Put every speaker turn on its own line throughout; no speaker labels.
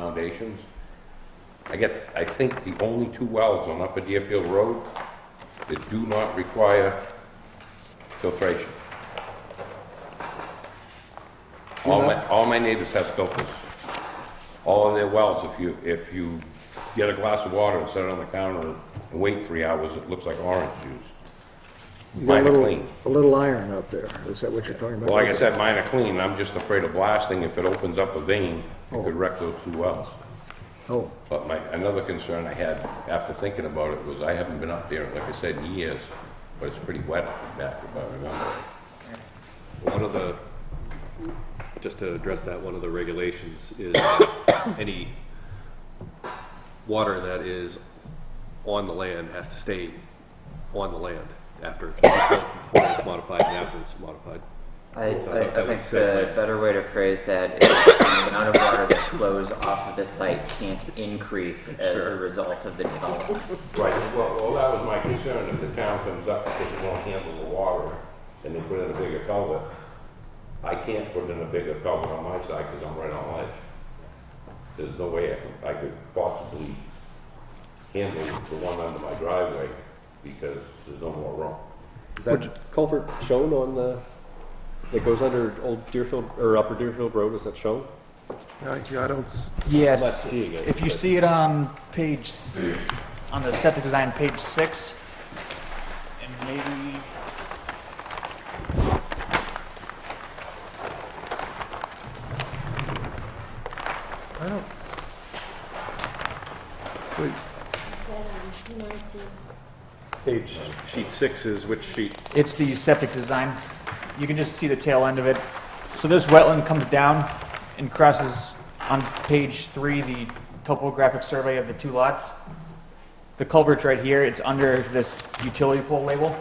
foundations. I get, I think the only two wells on Upper Deerfield Road that do not require filtration. All my, all my neighbors have filters. All of their wells, if you, if you get a glass of water and set it on the counter and wait three hours, it looks like orange juice.
You got
Mine
a
are
little-
clean.
A little iron up there, is that what you're talking about?
Well, like I said, mine are clean, I'm just afraid of blasting, if it opens up a vein, it could wreck those two wells.
Oh,
But my, another concern I had after thinking about it was I haven't been up there, like I said, in years, but it's pretty wet up back, if I remember.
One of the, just to address that, one of the regulations is that any water that is on the land has to stay on the land after it's, before it's modified and after it's modified.
I,
So that
I, I
would
think
set
the better way to phrase that is the amount of water that flows off of the site can't increase as a result of the development.
Right, well, well, that was my concern, if the town comes up because it won't handle the water, and they put in a bigger culvert, I can't put in a bigger culvert on my side, because I'm right on ledge. There's no way I could, I could possibly handle the one under my driveway, because there's no more room.
Is that culvert shown on the, that goes under Old Deerfield, or Upper Deerfield Road, is that shown?
I I don't, s-
I'm not
Yes.
seeing it,
If you
but-
see it on page, s- on the septic design, page six, and maybe,
I don't. Wait,
Page, sheet six is which sheet?
it's the septic design. You can just see the tail end of it. So this wetland comes down and crosses on page three, the topographic survey of the two lots. The culvert's right here, it's under this utility pole label.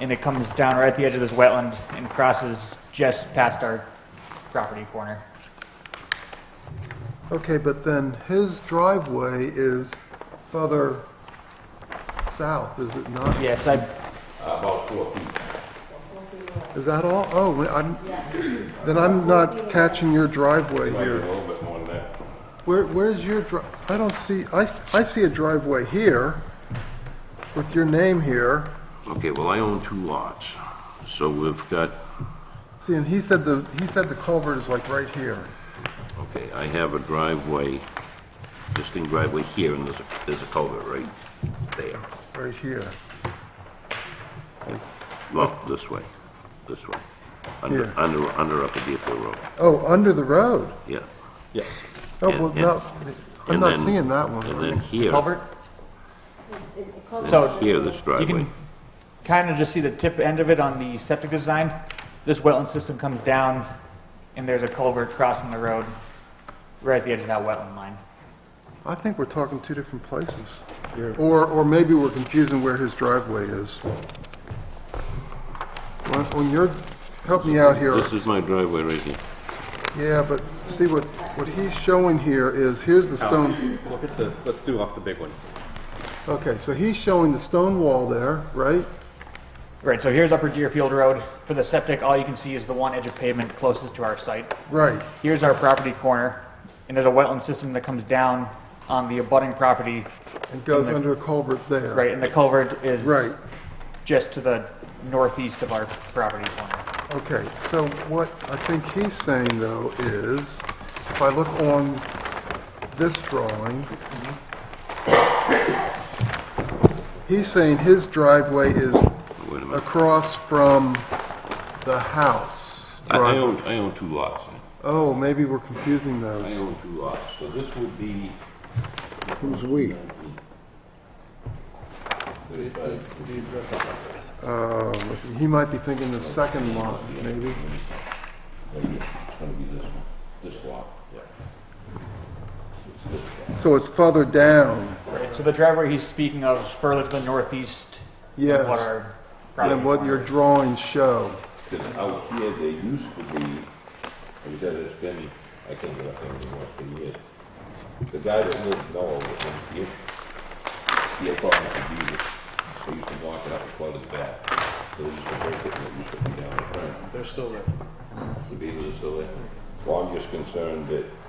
And it comes down right at the edge of this wetland and crosses just past our property corner.
Okay, but then his driveway is further south, is it not?
Yes, I
Uh, About four feet.
Is that all? Oh, we- I'm, then I'm not catching your driveway
Might be a
here.
little bit more than that.
Where, where's your dri, I don't see, I, I see a driveway here with your name here.
Okay, well, I own two lots, so we've got,
See, and he said the, he said the culvert is like right here.
okay, I have a driveway, existing driveway here, and there's a, there's a culvert right there.
Right here.
Well,
Oh.
this way, this way, under,
Here.
under, under Upper Deerfield Road,
Oh, under the road.
yeah.
Yes.
Oh,
And-
well,
and-
no, I'm
And
not
then-
seeing that one.
And then here,
culvert.
and
So
here, this
you
driveway.
can kind of just see the tip end of it on the septic design. This wetland system comes down and there's a culvert crossing the road right at the edge of that wetland line.
I think we're talking two different places. Or, or maybe we're confusing where his driveway is. When- When you're, help me out here.
This is my driveway right here.
Yeah, but see what, what he's showing here is, here's the stone,
Look at the, let's do off the big one.
okay, so he's showing the stone wall there, right?
Right, so here's Upper Deerfield Road. For the septic, all you can see is the one edge of pavement closest to our site.
Right,
Here's our property corner and there's a wetland system that comes down on the abutting property.
and goes under a culvert there.
Right, and the culvert is
Right.
just to the northeast of our property corner.
Okay, so what I think he's saying though is, if I look on this drawing, he's saying his driveway is
Wait a minute.
across from the house.
I, I
driveway.
own, I own two lots.
Oh, maybe we're confusing
I
those.
own two lots, so this would be,
who's we?
Uh, He might be thinking the second lot, maybe.
Maybe it's gonna be this one, this lot.
So it's further down
Right, so the driveway he's speaking of is further to the northeast
Yes.
than what our property
than what your
line is.
drawings show.
Because out here, they used to be, and said it's been, I can't get up there anymore, it's been years. The guy that lived Noah was in here. He had problems with deeded. They used to block it up and flood it back. So they used to break it and it used to be down in front. They're still there. The beavers are still there. Well, I'm just concerned that